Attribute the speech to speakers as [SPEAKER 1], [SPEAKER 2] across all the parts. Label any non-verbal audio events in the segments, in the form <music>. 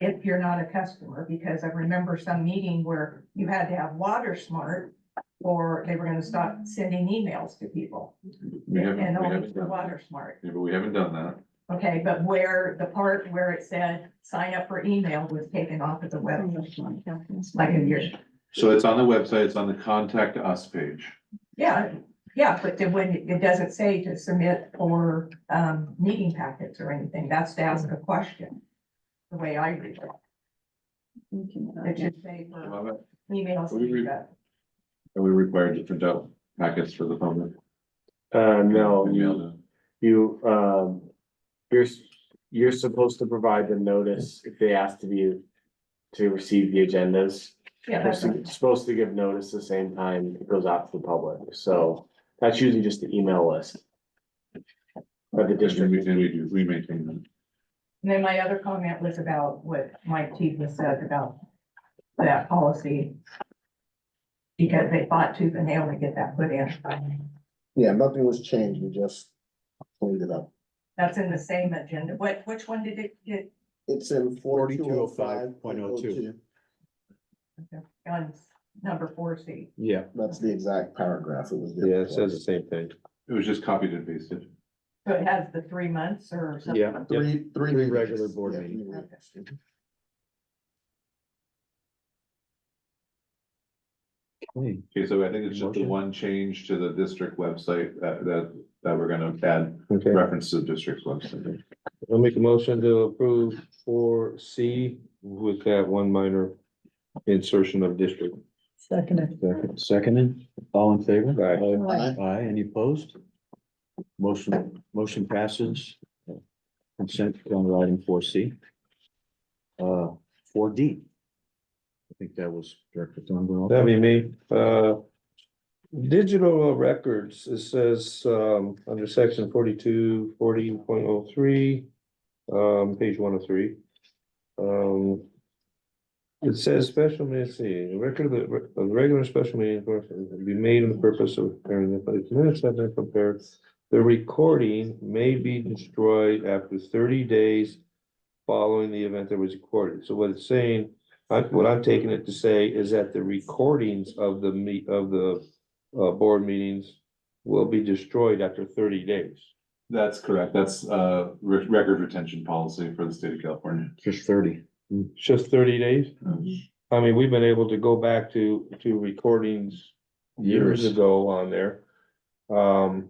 [SPEAKER 1] if you're not a customer, because I remember some meeting where you had to have water smart. Or they were gonna stop sending emails to people
[SPEAKER 2] We haven't,
[SPEAKER 1] and
[SPEAKER 2] we
[SPEAKER 1] only
[SPEAKER 2] haven't
[SPEAKER 1] for
[SPEAKER 2] done that.
[SPEAKER 1] water smart.
[SPEAKER 2] Yeah, but we haven't done that.
[SPEAKER 1] Okay, but where the part where it said sign up for email was taken off of the web, like a year.
[SPEAKER 2] So it's on the website, it's on the contact us page.
[SPEAKER 1] Yeah, yeah, but then when it- it doesn't say to submit for um meeting packets or anything, that's to ask a question. The way I read it, it should say for
[SPEAKER 2] Love it.
[SPEAKER 1] emails.
[SPEAKER 2] We read- Are we required to print out packets for the public?
[SPEAKER 3] Uh,
[SPEAKER 2] Email
[SPEAKER 3] no,
[SPEAKER 2] them.
[SPEAKER 3] you, um, you're, s- you're supposed to provide the notice if they ask to be, to receive the agendas.
[SPEAKER 1] Yeah,
[SPEAKER 3] You're
[SPEAKER 1] that's right.
[SPEAKER 3] su- supposed to give notice the same time it goes out to the public, so that's usually just the email list. Of the
[SPEAKER 2] And then
[SPEAKER 3] district,
[SPEAKER 2] we, then we do, we maintain them.
[SPEAKER 1] And then my other comment was about what Mike Teasley said about that policy. Because they fought tooth and nail to get that put in.
[SPEAKER 4] Yeah, nothing was changed, we just cleaned it up.
[SPEAKER 1] That's in the same agenda. What, which one did it get?
[SPEAKER 4] It's in forty-two oh five point oh two.
[SPEAKER 5] 4205.02.
[SPEAKER 1] On number four C.
[SPEAKER 5] Yeah,
[SPEAKER 4] That's the exact paragraph it was.
[SPEAKER 5] yeah, it says the same thing.
[SPEAKER 2] It was just copied and pasted.
[SPEAKER 1] So it has the three months or something?
[SPEAKER 5] Yeah.
[SPEAKER 4] Three, three.
[SPEAKER 5] Three regular
[SPEAKER 4] meetings.
[SPEAKER 5] board
[SPEAKER 4] Yeah, three
[SPEAKER 5] meetings.
[SPEAKER 4] meetings.
[SPEAKER 2] Okay, so I think it's just the
[SPEAKER 5] Motion.
[SPEAKER 2] one change to the district website that, that, that we're gonna add
[SPEAKER 5] Okay,
[SPEAKER 2] reference to the district's website.
[SPEAKER 5] I'll make a motion to approve four C with that one minor insertion of district.
[SPEAKER 6] Seconded.
[SPEAKER 7] Seconded, all in favor?
[SPEAKER 5] Aye.
[SPEAKER 4] Aye.
[SPEAKER 7] Aye, any opposed? Motion, motion passes. Consent calendar item four C. Uh, four D. I think that was Director Thornwell.
[SPEAKER 5] That'd be me, uh. Digital records, it says, um, under section forty-two, forty point oh three, um, page one oh three. Um. It says special meeting, let's see, the record of, the- of regular special meeting will be made in the purpose of preparing the public minutes have been prepared. The recording may be destroyed after thirty days following the event that was recorded. So what it's saying I, what I'm taking it to say is that the recordings of the meet, of the, uh, board meetings will be destroyed after thirty days.
[SPEAKER 2] That's correct. That's, uh, re- record retention policy for the state of California.
[SPEAKER 7] Just thirty.
[SPEAKER 5] It's Just thirty days?
[SPEAKER 2] Mhm.
[SPEAKER 5] I mean, we've been able to go back to, to recordings years
[SPEAKER 7] Years.
[SPEAKER 5] ago on there. Um,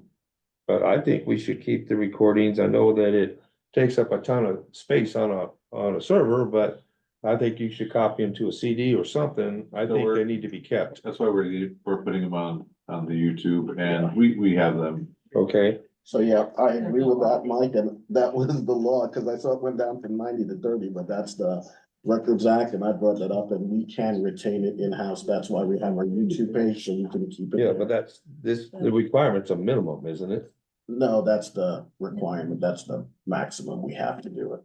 [SPEAKER 5] but I think we should keep the recordings. I know that it takes up a ton of space on a, on a server, but I think you should copy them to a CD or something. I
[SPEAKER 2] So
[SPEAKER 5] think
[SPEAKER 2] we're-
[SPEAKER 5] they need to be kept,
[SPEAKER 2] That's why we're, we're putting them on, on the YouTube and we, we have them
[SPEAKER 5] okay?
[SPEAKER 4] So, yeah, I agree with that, Mike, and that was the law, because I saw it went down from ninety to thirty, but that's the Records Act, and I brought that up, and we can retain it in-house, that's why we have our YouTube page, so we can keep it.
[SPEAKER 5] Yeah,
[SPEAKER 4] there.
[SPEAKER 5] but that's, this, the requirement's a minimum, isn't it?
[SPEAKER 4] No, that's the requirement, that's the maximum, we have to do it.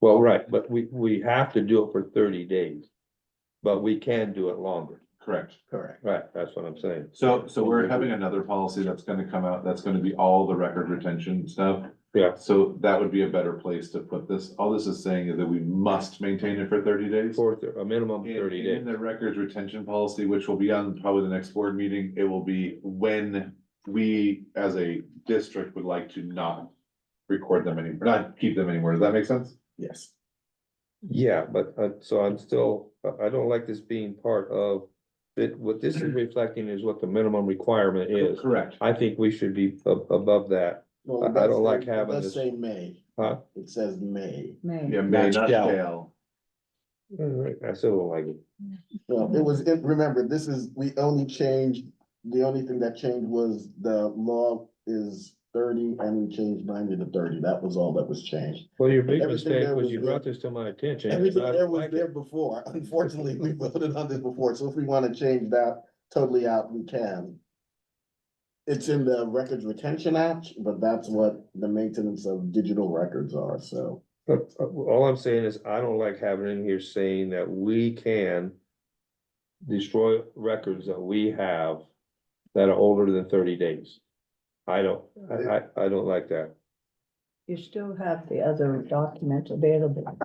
[SPEAKER 5] Well, right, but we, we have to do it for thirty days. But we can do it longer.
[SPEAKER 2] correct.
[SPEAKER 4] Correct.
[SPEAKER 5] Right, that's what I'm saying.
[SPEAKER 2] So, so we're having another policy that's gonna come out, that's gonna be all the record retention stuff.
[SPEAKER 5] Yeah.
[SPEAKER 2] So that would be a better place to put this. All this is saying is that we must maintain it for thirty days.
[SPEAKER 5] For thir- a minimum
[SPEAKER 2] In-
[SPEAKER 5] thirty days.
[SPEAKER 2] In the records retention policy, which will be on probably the next board meeting, it will be when we as a district would like to not record them anymore, not keep them anymore. Does that make sense?
[SPEAKER 4] Yes.
[SPEAKER 5] Yeah, but, uh, so I'm still, I, I don't like this being part of. That what this is reflecting is what the minimum requirement is.
[SPEAKER 2] Correct.
[SPEAKER 5] I think we should be a- above that.
[SPEAKER 4] Well,
[SPEAKER 5] I-
[SPEAKER 4] it
[SPEAKER 5] I
[SPEAKER 4] does
[SPEAKER 5] don't like
[SPEAKER 4] say-
[SPEAKER 5] having
[SPEAKER 4] It does
[SPEAKER 5] this-
[SPEAKER 4] say May.
[SPEAKER 5] Huh?
[SPEAKER 4] It says May.
[SPEAKER 2] Yeah,
[SPEAKER 6] May.
[SPEAKER 2] may
[SPEAKER 7] Not
[SPEAKER 2] not
[SPEAKER 7] shall.
[SPEAKER 2] shall.
[SPEAKER 5] I still don't like it.
[SPEAKER 4] Well, it was, it- remember, this is, we only changed, the only thing that changed was the law is thirty and we changed ninety to thirty. That was all that was changed.
[SPEAKER 5] Well, your big
[SPEAKER 4] Everything
[SPEAKER 5] mistake
[SPEAKER 4] there
[SPEAKER 5] was
[SPEAKER 4] was
[SPEAKER 5] you
[SPEAKER 4] there.
[SPEAKER 5] brought this to my attention. and
[SPEAKER 4] Everything
[SPEAKER 5] I
[SPEAKER 4] there
[SPEAKER 5] don't
[SPEAKER 4] was
[SPEAKER 5] like it.
[SPEAKER 4] there before. <laughs> Unfortunately, we voted on this before, so if we want to change that totally out, we can. It's in the Records Retention Act, but that's what the maintenance of digital records are, so.
[SPEAKER 5] But uh, all I'm saying is I don't like having in here saying that we can. Destroy records that we have that are older than thirty days. I don't, I, I, I don't like that.
[SPEAKER 6] You still have the other documents available.